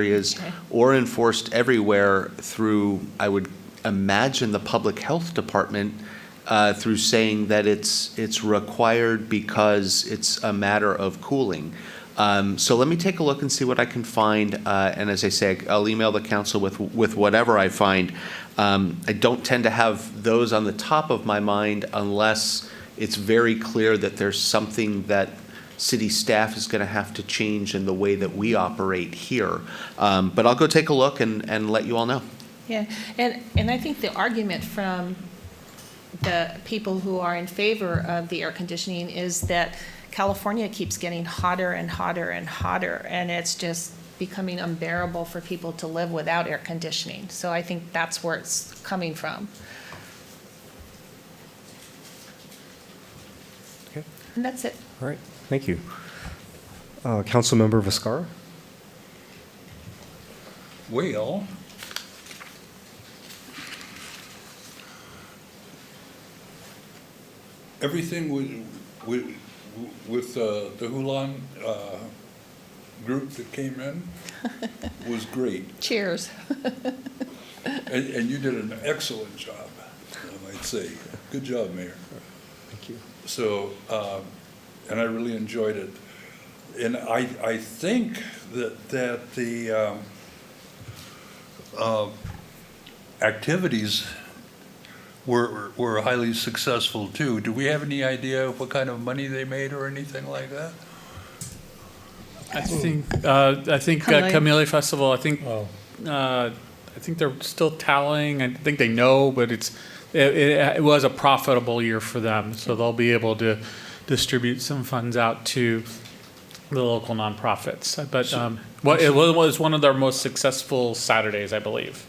areas Okay. or enforced everywhere through, I would imagine, the Public Health Department, uh, through saying that it's, it's required because it's a matter of cooling. Um, So let me take a look and see what I can find, uh, and as I say, I'll email the council with, with whatever I find. Um, I don't tend to have those on the top of my mind unless it's very clear that there's something that city staff is going to have to change in the way that we operate here. Um, But I'll go take a look and, and let you all know. Yeah, and, and I think the argument from the people who are in favor of the air conditioning is that California keeps getting hotter and hotter and hotter, and it's just becoming unbearable for people to live without air conditioning. So I think that's where it's coming from. Okay. And that's it. All right, thank you. Uh, Councilmember Viscara? Well, everything with, with, with uh, the Hulan uh, group that came in was great, Cheers. and, and you did an excellent job, I might say. Good job, Mayor. Thank you. So, um, and I really enjoyed it. And I, I think that, that the, um, uh, activities were, were highly successful too. Do we have any idea what kind of money they made or anything like that? I think, uh, I think uh, Kamele. Kamele Festival, I think, Oh. uh, I think they're still tallying. I think they know, but it's, it, it it was a profitable year for them. So they'll be able to distribute some funds out to the local nonprofits. But, um, what, it was was one of their most successful Saturdays, I believe.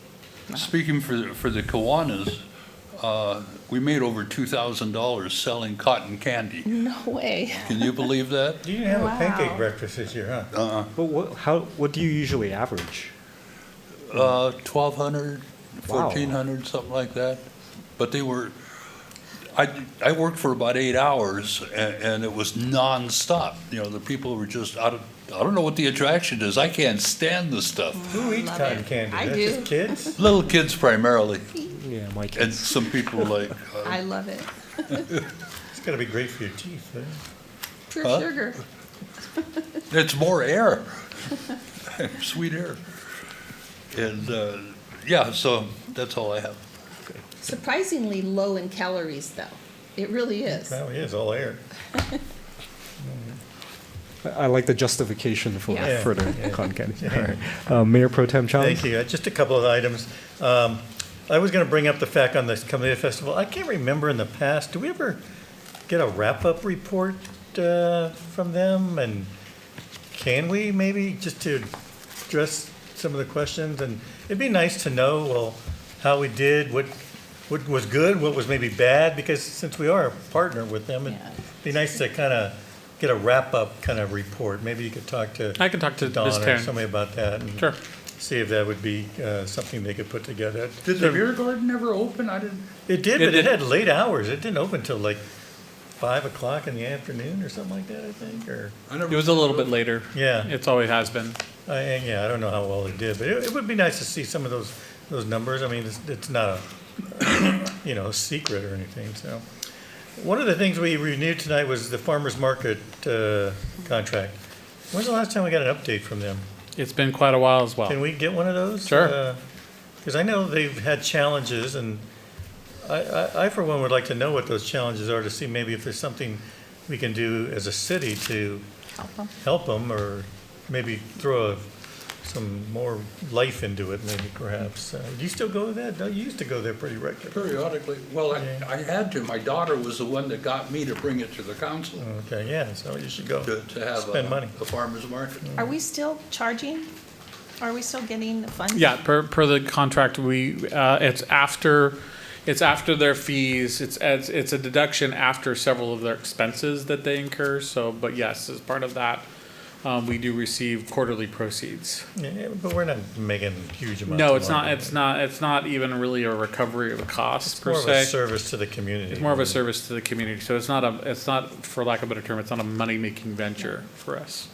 Speaking for, the- for the Kiwanis, uh, we made over two thousand dollars selling cotton candy. No way. Can you believe that? You didn't have a Wow. pancake breakfast this year, huh? Uh-uh. But what, how, what do you usually average? Uh, twelve hundred, Wow. fourteen hundred, something like that. But they were, I, I worked for about eight hours and, and it was nonstop. You know, the people were just, I don't, I don't know what the attraction is. I can't stand this stuff. Who eats Love cotton it. candy? I That's do. just kids? Little kids primarily, Yeah, my and kids. some people like, uh, I love it. It's gotta be great for your teeth, huh? Pure Huh? sugar. it's more air. Sweet air. And, uh, yeah, so that's all I have. Surprisingly low in calories, though. It really is. Probably is, all air. I I like the justification for, Yeah. for the con candy. All right. Uh, Mayor Pro Tem Chong? Thank you. Uh, Just a couple of items. Um, I was going to bring up the fact on the Kamea Festival. I can't remember in the past, do we ever get a wrap-up report uh, from them? And can we maybe just to address some of the questions? And it'd be nice to know, well, how we did, what, what was good, what was maybe bad, because since we are a partner with them, it'd Yeah. be nice to kind of get a wrap-up kind of report. Maybe you could talk to I can talk to Don Ms. or Taryn. somebody about that. and- Sure. see if that would be uh, something they could put together. Did the beer garden ever open? I didn't. It did, It but it did. had late hours. It didn't open till like five o'clock in the afternoon or something like that, I think, or, I never. It was a little bit later. Yeah. It's always has been. I- and yeah, I don't know how well it did, but it, it would be nice to see some of those, those numbers. I mean, it's, it's not a, you know, secret or anything, so. One of the things we renewed tonight was the farmer's market uh, contract. When's the last time we got an update from them? It's been quite a while as well. Can we get one of those? Sure. Because I know they've had challenges, and I, I, I for one would like to know what those challenges are to see maybe if there's something we can do as a city to help them, or maybe throw a- some more life into it, maybe perhaps. Uh, Do you still go there? No, You used to go there pretty regularly. Periodically, well, I, Yeah. I had to, my daughter was the one that got me to bring it to the council, Okay, yeah, so you should go. to, to have Oh. Spend a, money. a farmer's market. Are we still charging? Are we still getting funds? Yeah, per, per the contract, we, uh, it's after, it's after their fees, it's, it's, it's a deduction after several of their expenses that they incur, so, but yes, as part of that, um, we do receive quarterly proceeds. Yeah, But we're not making huge amounts. No, of it's not, money. it's not, it's not even really a recovery of a cost per More of se. a service to the community. It's more of a service to the community, so it's not a, it's not, for lack of a better term, it's not a money-making venture for us.